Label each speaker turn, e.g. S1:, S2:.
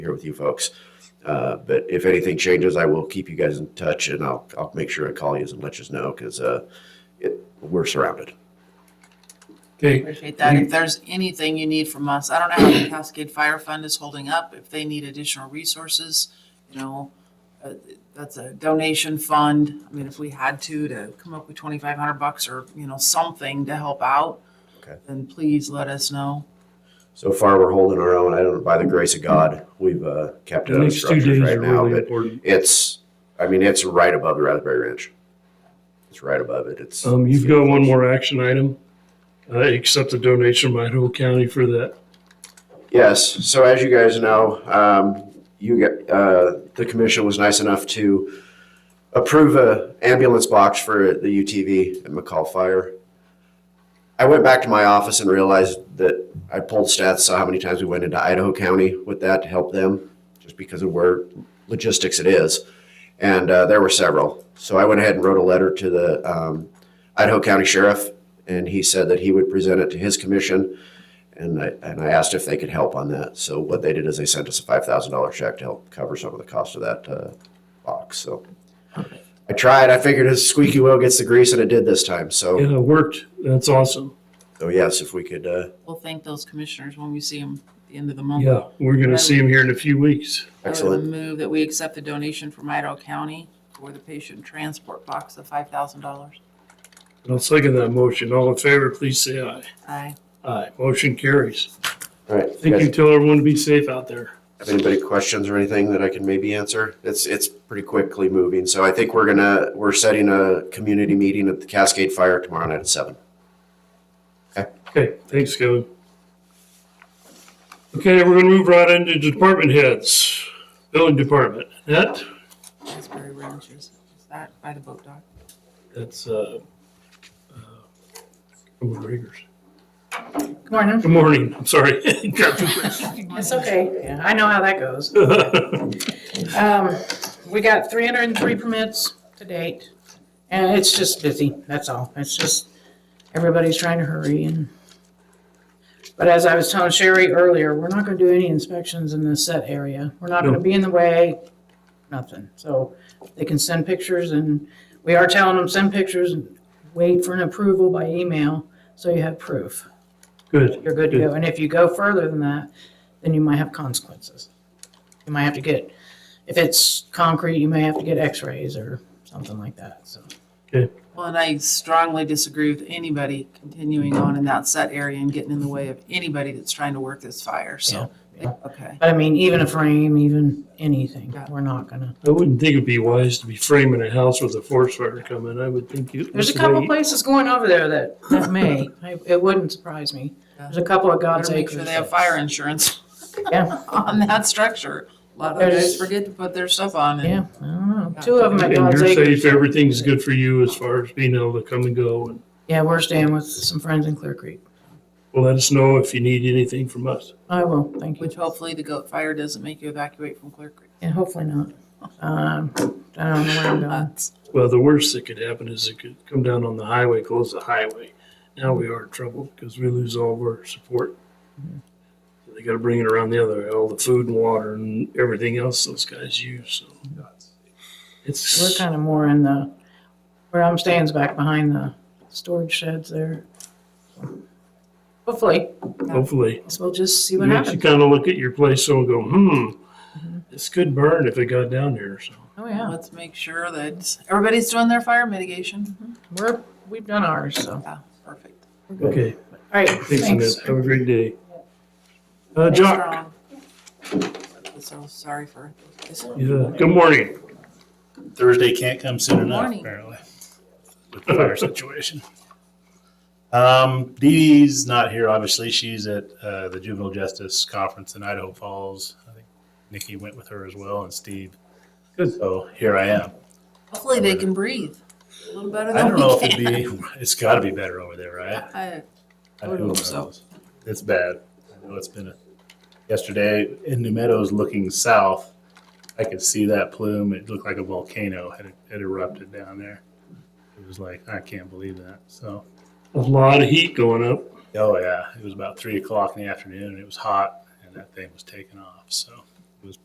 S1: here with you folks. Uh, but if anything changes, I will keep you guys in touch and I'll, I'll make sure I call you and let you know because uh, it, we're surrounded.
S2: Okay,
S3: Appreciate that. If there's anything you need from us, I don't know how the Cascade Fire Fund is holding up, if they need additional resources, you know, uh, that's a donation fund. I mean, if we had to, to come up with twenty-five hundred bucks or, you know, something to help out,
S1: Okay.
S3: then please let us know.
S1: So far, we're holding our own. I don't, by the grace of God, we've uh, kept it
S2: the
S1: on
S2: next two
S1: structures
S2: days
S1: right
S2: are
S1: now.
S2: really
S1: But
S2: important.
S1: it's, I mean, it's right above the Raspberry Ranch. It's right above it. It's.
S2: Um, you've got one more action item. Uh, accept the donation by Idaho County for that.
S1: Yes, so as you guys know, um, you get, uh, the commission was nice enough to approve a ambulance box for the UTV at McCall Fire. I went back to my office and realized that I pulled stats, saw how many times we went into Idaho County with that to help them, just because of where logistics it is. And, uh, there were several. So I went ahead and wrote a letter to the, um, Idaho County Sheriff, and he said that he would present it to his commission. And I, and I asked if they could help on that. So what they did is they sent us a five thousand dollar check to help cover some of the cost of that uh, box. So I tried. I figured a squeaky wheel gets the grease, and it did this time. So,
S2: Yeah, it uh, worked. That's awesome.
S1: so yes, if we could, uh,
S3: We'll thank those commissioners when we see them at the end of the month.
S2: Yeah, we're gonna see him here in a few weeks.
S3: I would
S1: excellent.
S3: move that we accept the donation from Idaho County for the patient transport box of five thousand dollars.
S2: I'll second that motion. All in favor, please say aye.
S3: Aye.
S2: Aye. Motion carries.
S1: All right.
S2: Thank you. Tell everyone to be safe out there.
S1: Have anybody questions or anything that I can maybe answer? It's it's pretty quickly moving. So I think we're gonna we're setting a community meeting at the Cascade Fire tomorrow night at seven.
S2: Okay, thanks, Kevin. Okay, we're gonna move right into department heads. Building department. That,
S3: Asbury Ranches, is that by the boat dock?
S2: that's, uh, uh, Rigger's.
S4: Good Morning.
S2: Good morning. I'm sorry. Got too quick.
S4: It's okay. I know how that goes. Um, we got three hundred and three permits to date, and it's just busy, that's all. It's just, everybody's trying to hurry and. But as I was telling Sherry earlier, we're not gonna do any inspections in this set area. We're not
S2: No.
S4: gonna be in the way, nothing. So they can send pictures and we are telling them, send pictures and wait for an approval by email, so you have proof.
S2: Good.
S4: you're good to go. And if you go further than that, then you might have consequences. You might have to get, if it's concrete, you may have to get x-rays or something like that, so.
S3: Well, and I strongly disagree with anybody continuing on in that set area and getting in the way of anybody that's trying to work this fire, so,
S4: Yeah.
S3: okay.
S4: But I mean, even a frame, even anything,
S3: Yeah.
S4: we're not gonna.
S2: I wouldn't think it'd be wise to be framing a house with a forest fire coming. I would think you.
S4: There's a couple places going over there that, that may, I- it wouldn't surprise me.
S3: Yeah.
S4: There's a couple of God's
S3: Better make
S4: acres.
S3: sure they have
S4: that-
S3: fire insurance
S4: Yeah,
S3: on that structure. A lot of
S4: There's-
S3: guys forget to put their stuff on and
S4: yeah, I don't know. Two of them
S2: And
S4: at God's
S2: you're safe.
S4: acres.
S2: Everything's good for you as far as being able to come and go. And
S4: Yeah, we're staying with some friends in Clear Creek.
S2: let us know if you need anything from us.
S4: I will, thank you.
S3: which hopefully the goat fire doesn't make you evacuate from Clear Creek.
S4: Yeah, hopefully not. Um, I don't know where I'm going.
S3: That's-
S2: Well, the worst that could happen is it could come down on the highway, close the highway. Now we are in trouble because we lose all of our support.
S4: Hmm.
S2: So They gotta bring it around the other, all the food and water and everything else those guys use, so.
S4: We're
S2: It's,
S4: kind of more in the, where I'm stands back behind the storage sheds there. Hopefully,
S2: hopefully.
S4: guess we'll just see
S2: It
S4: what
S2: makes you
S4: happens. Mm-hmm.
S2: kind of look at your place and go, hmm, this could burn if it got down here. So
S4: Oh, yeah,
S3: Let's make sure that everybody's doing their fire mitigation.
S4: we're, we've done ours, so.
S3: Yeah, perfect.
S2: okay,
S4: All right,
S2: thanks,
S4: thanks.
S2: Annette. Have a great day. Uh,
S3: Stay
S2: Jock,
S3: strong. So sorry for this.
S2: yeah, good morning.
S5: Thursday can't come soon
S3: Good
S5: enough,
S3: morning.
S5: apparently, with the fire situation. Um, Dee Dee's not here, obviously. She's at uh, the Juvenile Justice Conference in Idaho Falls. I think Nikki went with her as well, and Steve.
S2: Good.
S5: So here I am.
S3: Hopefully they can breathe a little better
S5: I
S3: than
S5: don't
S3: we
S5: know if
S3: can.
S5: it'd be, it's got to be better over there, right?
S3: I- I
S5: Who
S3: would hope so.
S5: knows? It's bad. I know it's been a, yesterday in New Meadows looking south, I could see that plume. It looked like a volcano had, had erupted down there. It was like, I can't believe that. So,
S2: A lot of heat going up.
S5: oh yeah, it was about three o'clock in the afternoon. and It was hot and that thing was taking off. So